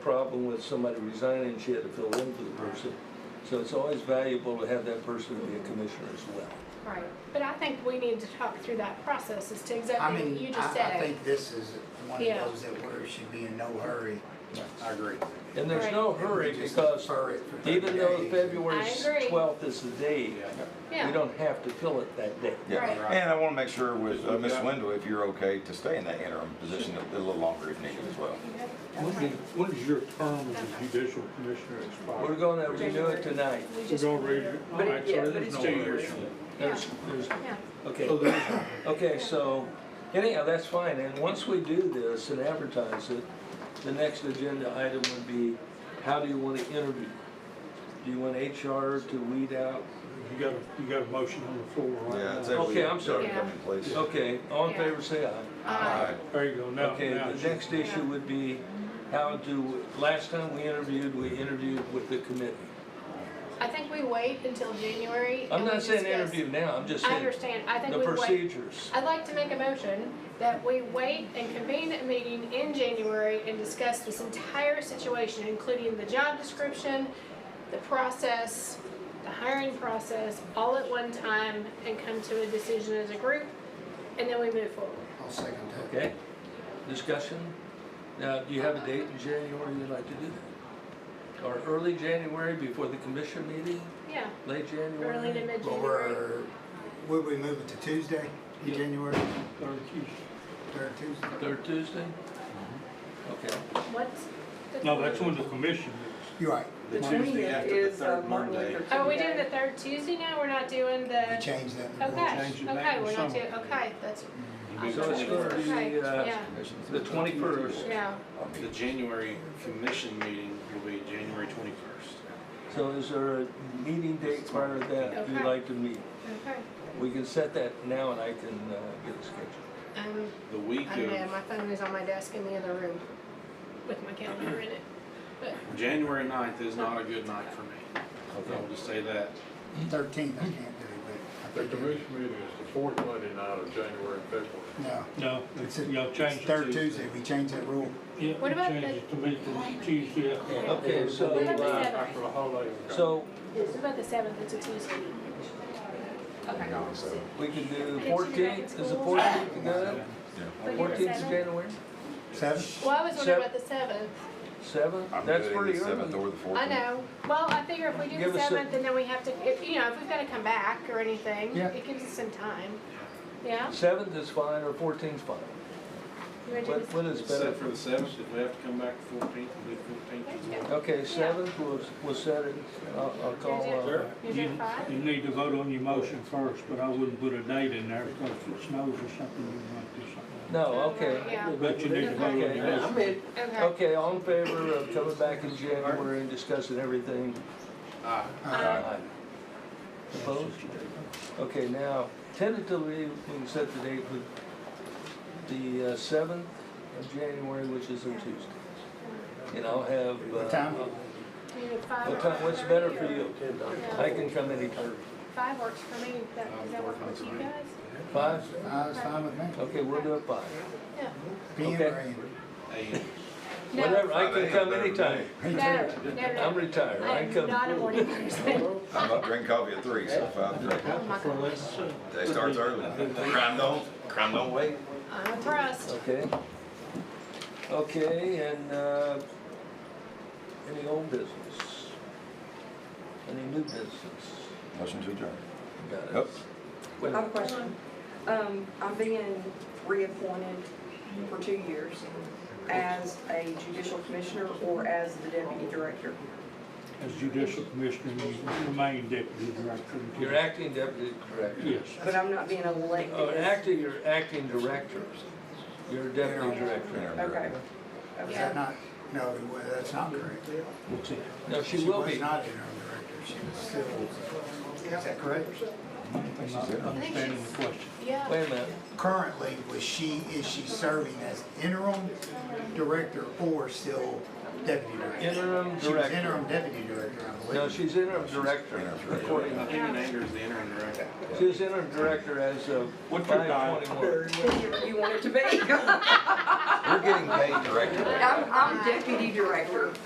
problem with somebody resigning, she had to fill in for the person. So it's always valuable to have that person be a commissioner as well. Right, but I think we need to talk through that process as to I exactly mean, what you just I, I said. think this is one of Yeah. those that we should be in no hurry. I agree. And there's no If we hurry just because defer it for 30 even though days. February I agree. 12th is the date, we Yeah, don't have to fill it that day. Right. Yeah, and I want to make sure with uh, Ms. Wendell, if you're okay to stay in that interim position a little longer if needed as well. When did- when does your term as a judicial commissioner We're expire? gonna renew it tonight. we We're just. gonna read it. But it- yeah, but it's So two there's years. no Yeah, There's, there's, yeah, okay. So there's no- Okay, so anyhow, that's fine, and once we do this and advertise it, the next agenda item would be, how do you want to interview? Do you want HR to weed out? You got, a- you got a motion on the floor Yeah, right I'd say now. we- Okay, I'm sorry. Come in, please. Okay, all in favor, say aye. uh, There you go, now, Okay, now. the next issue would be, how do, last time we interviewed, we interviewed with the committee. I think we wait until January. I'm and we not saying discuss- interview now, I'm just I saying understand, I think the we wait. procedures. I'd like to make a motion that we wait and convene a meeting in January and discuss this entire situation, including the job description, the process, the hiring process, all at one time, and come to a decision as a group, and then we move forward. I'll second that. Okay, discussion. Now, do you have a date in January you'd like to do that? Or early January before the commission meeting, Yeah, late January? early to mid-January. Or, would we move it to Tuesday, in Yeah. January, Third Tuesday. third Tuesday? Third Tuesday? Okay, What's? the- No, that's when the commission You're right, The Between Tuesday it after the is uh, third Martin Monday. Luther King. Are we doing Day. the third Tuesday now? We're not doing we the, changed that. in the rules. okay, change it back okay, to we're not summer. doing, okay, that's. I'm so it's confused. gonna be, Okay, uh, Yeah, the twenty-first, yeah. The January commission meeting will be January twenty-first. so is there a meeting date prior to that you'd Okay. like to meet? Okay. We can set that now and I can, uh, get a schedule. Um, The week I don't know, of my phone is on my desk in the other room with my calendar in it. But January 9th is not a good night for me. I'll just say that. Thirteenth, I can't do it, but. I The think commission meeting is the fourth Monday night of January and February. No, No, it's, you know, a- change it's it. third to- Tuesday, we changed that rule. Yeah, What about change the- it to be the Tuesday after. Okay, so, What about the uh, seventh? After the holiday. So What about the seventh? It's a Tuesday. Okay. we can do Get you back in fourteenth, is the school. fourteenth good? We're doing Fourteenth of seven? January, Seven, Well, I was wondering Seven. about the seventh. seventh, I'm that's good either pretty Seventh early. or the fourteenth. I know. Well, I figure if we do Give the us a- seventh and then we have to, if, you know, if we've gotta come back or anything, Yeah. it gives us some time. Yeah? Seventh is fine or fourteenth's fine, You wanna do what, the- what is better? Except for the seventh, if we have to come back the fourteenth, we'll do fourteenth as well. Okay, seventh, we'll, we'll set it, I'll, I'll call, uh, Sir, You're you, doing five? you need to vote on your motion first, but I wouldn't put a date in there because if it snows or something, you might do something. no, Oh, okay. Yeah. But you need to vote on your Okay. motion. Okay. Okay, all in favor of coming back in January and discussing everything? Ah, Uh, Opposed? Okay, now, tentatively, we can set the date with the uh, seventh of January, which is a Tuesday. And I'll have, what uh, time? you do five or what time, what's better for you? Yeah. I can come anytime. Five works for me. That, does that work with you guys? Five? Uh, it's fine with me, Okay, we'll do it five. Yeah. PM or AM? and No. Whatever, I Five can AM come better than anytime. me. Me No, too. no, I'm no. retired, I I'm can not a come. morning person. I'm up drinking coffee at three, so five, three. Oh my gosh. Day starts early. Crime don't, crime don't wait. I'm impressed. Okay. Okay, and, uh, any old business? Any new business? Motion to adjourn. Got it. Nope. I have a question. Um, I'm being reappointed for two years as a judicial commissioner or as the deputy director. As judicial commissioner, you remain deputy director. until- You're acting deputy director. Yes. But I'm not being elected. Oh, and as- acting, you're acting director. You're deputy director. Interim Okay. director. Is Okay. that not, no, well, that's not correct. No, she will was be. not interim director, she was still, is that correct? I'm not understanding the question. Yeah. Wait a minute. Currently, was she, is she serving as interim director or still deputy director? Interim She was director. interim deputy director, I believe. No, she's interim director. Interim director. according- I think in anger is the interim director. She's interim director as of What's your five twenty-one. You- You want it to be? I'm, We're getting paid directly. I'm deputy director.